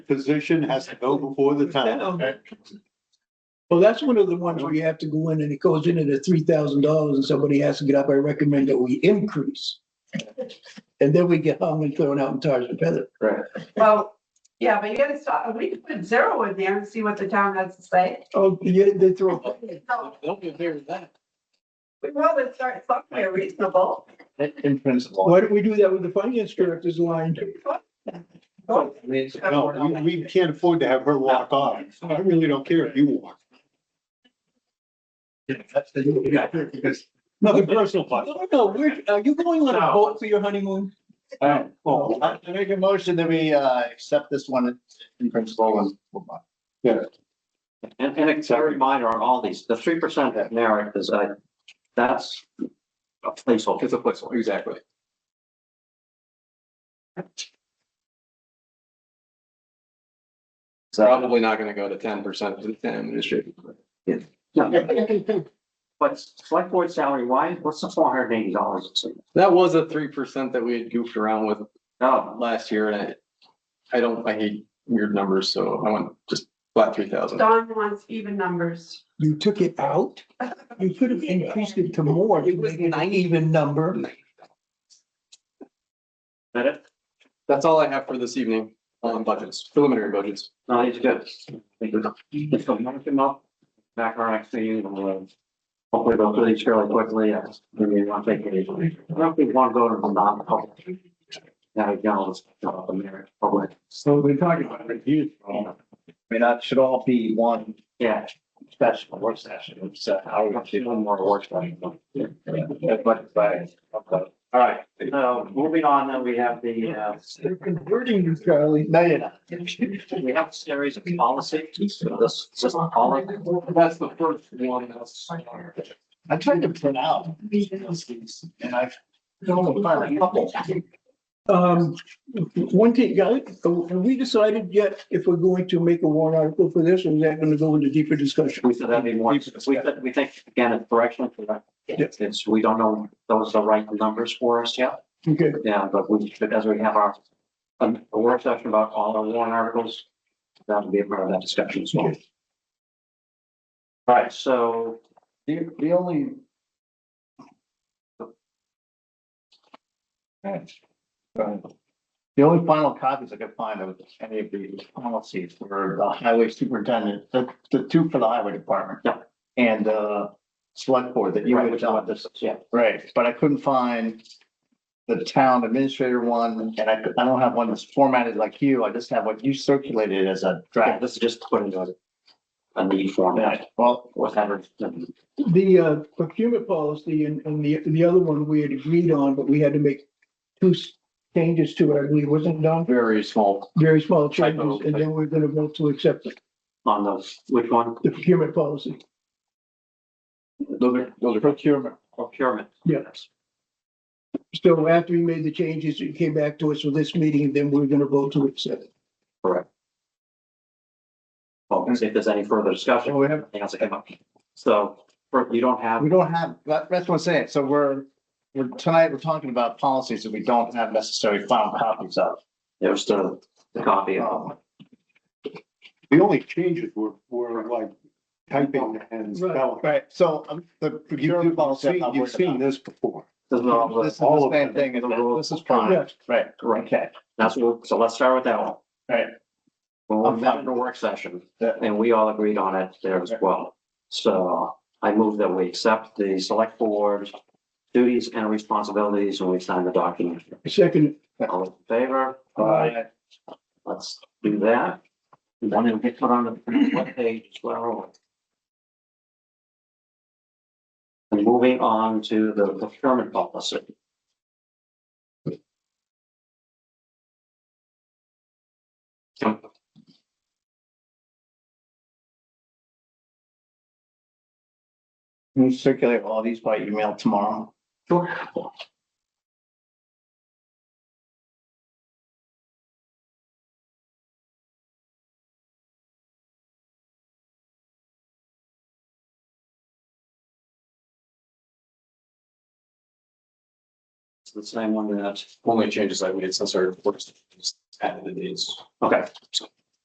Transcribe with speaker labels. Speaker 1: position has to go before the town.
Speaker 2: Well, that's one of the ones where you have to go in and it goes into the three thousand dollars and somebody has to get up. I recommend that we increase. And then we get hung and thrown out in tars and feathers.
Speaker 3: Well, yeah, but you gotta stop, we could put zero in there and see what the town has to say.
Speaker 2: Oh, yeah, they throw.
Speaker 3: So
Speaker 4: Don't be afraid of that.
Speaker 3: We want to start somewhere reasonable.
Speaker 4: In principle.
Speaker 2: Why don't we do that with the finance director's line?
Speaker 3: Go
Speaker 4: I mean, it's-
Speaker 1: No, we, we can't afford to have her walk off. I really don't care if you walk.
Speaker 4: that's the- we got here because-
Speaker 1: Nothing personal, but.
Speaker 2: No, no, we're, are you going on a boat for your honeymoon?
Speaker 4: All right, uh, well, I I make a motion that we uh accept this one in principle and. move on.
Speaker 5: And, and it's a reminder on all these, the three percent that merit is, uh, that's a placeholder.
Speaker 6: It's a placeholder, exactly.
Speaker 5: So,
Speaker 6: Probably not gonna go to ten percent of the town administration.
Speaker 5: no. But select board salary, why, what's the four hundred and eighty dollars?
Speaker 6: That was a three percent that we had goofed around with
Speaker 5: No,
Speaker 6: last year and I, I don't, I hate weird numbers, so I want just flat three thousand.
Speaker 3: Don wants even numbers.
Speaker 2: You took it out? You could have increased it to more. to make It was an even number.
Speaker 5: that it,
Speaker 6: That's all I have for this evening on budgets, preliminary budgets.
Speaker 5: no, these are good. Thank you. So, mark them up, back our next meeting, and we'll uh, hopefully go through these fairly quickly, uh, maybe you want to take it. I don't think we want to go to the non-public. Now, you know, let's talk about the merit public,
Speaker 4: So we're talking about reviews. I mean, that should all be one
Speaker 5: yeah.
Speaker 4: special work session. It's uh, how we.
Speaker 5: Actually, one more work session.
Speaker 4: That's what it's by. okay. All right.
Speaker 5: So moving on, then we have the, uh,
Speaker 2: They're converting you, Charlie.
Speaker 4: No, you're not.
Speaker 5: we have a series of policies. So This, this is all,
Speaker 6: That's the first one that's.
Speaker 4: I tried to print out. And I've. Don't find a couple.
Speaker 2: Um, one thing, guys, have we decided yet if we're going to make a warrant article for this, or is that gonna go into deeper discussion?
Speaker 5: we said that'd be more, we said, we think, again, it's directionally correct.
Speaker 2: Yeah.
Speaker 5: It's, we don't know if those are the right numbers for us yet,
Speaker 2: Okay,
Speaker 5: yeah, but we, should as we have our, um, a work session about all our warrant articles, that'll be a part of that discussion as well. All right, so
Speaker 4: The, the only. The only final copies I could find of any of these policies were the highway superintendent, the, the two for the highway department.
Speaker 5: Yeah.
Speaker 4: And, uh, select board that you
Speaker 5: Right,
Speaker 4: would
Speaker 5: which one?
Speaker 4: adopt this,
Speaker 5: Yeah.
Speaker 4: right, but I couldn't find. The town administrator one, and I, could- I don't have one that's formatted like you, I just have what you circulated as a
Speaker 5: yeah,
Speaker 4: draft.
Speaker 5: this is just put into a- a need format,
Speaker 4: Yeah, well,
Speaker 5: whatever.
Speaker 2: the uh, procurement policy and, and the, the other one we had agreed on, but we had to make two s- changes to it, I believe, wasn't it, Don?
Speaker 6: Very small.
Speaker 2: Very small
Speaker 6: Typo.
Speaker 2: changes, and then we're gonna vote to accept it,
Speaker 5: On those, which one?
Speaker 2: the procurement policy.
Speaker 6: Those are, those are.
Speaker 4: procurement,
Speaker 5: Procurement.
Speaker 2: Yes. So after we made the changes, it came back to us for this meeting, then we're gonna vote to accept it.
Speaker 5: Well, we'll see if there's any further discussion,
Speaker 4: so we have,
Speaker 5: anything else that came up. So for- you don't have,
Speaker 4: We don't have, that, that's what I'm saying. So we're, we're, tonight, we're talking about policies that we don't have necessary final copies of.
Speaker 5: there's the, the copy of
Speaker 4: Um,
Speaker 1: The only changes were, were like typing and spelling.
Speaker 4: Right, so um, the procurement
Speaker 1: You've
Speaker 4: policy. I'm
Speaker 1: seen,
Speaker 4: not
Speaker 1: you've
Speaker 4: worried
Speaker 1: seen
Speaker 4: about.
Speaker 1: this before.
Speaker 5: This is all
Speaker 4: This is
Speaker 5: the-
Speaker 4: the
Speaker 5: all
Speaker 4: same
Speaker 5: of
Speaker 4: thing,
Speaker 5: the rules.
Speaker 4: this is fine,
Speaker 2: Yes.
Speaker 4: right,
Speaker 5: Right.
Speaker 4: okay,
Speaker 5: That's what, so let's start with that one.
Speaker 4: right.
Speaker 5: Well,
Speaker 4: I'm
Speaker 5: we
Speaker 4: fine.
Speaker 5: met in a work session
Speaker 4: Yeah.
Speaker 5: and we all agreed on it there as well. So I move that we accept the select board duties and responsibilities and we sign the document.
Speaker 2: Second,
Speaker 5: All in favor?
Speaker 4: Uh,
Speaker 5: Let's do that. One will get put on the web page as well. And moving on to the procurement policy.
Speaker 4: Can you circulate all these by email tomorrow?
Speaker 5: Sure. It's the same one that,
Speaker 6: Only changes I made since our work. session, just Added the dates.
Speaker 5: okay,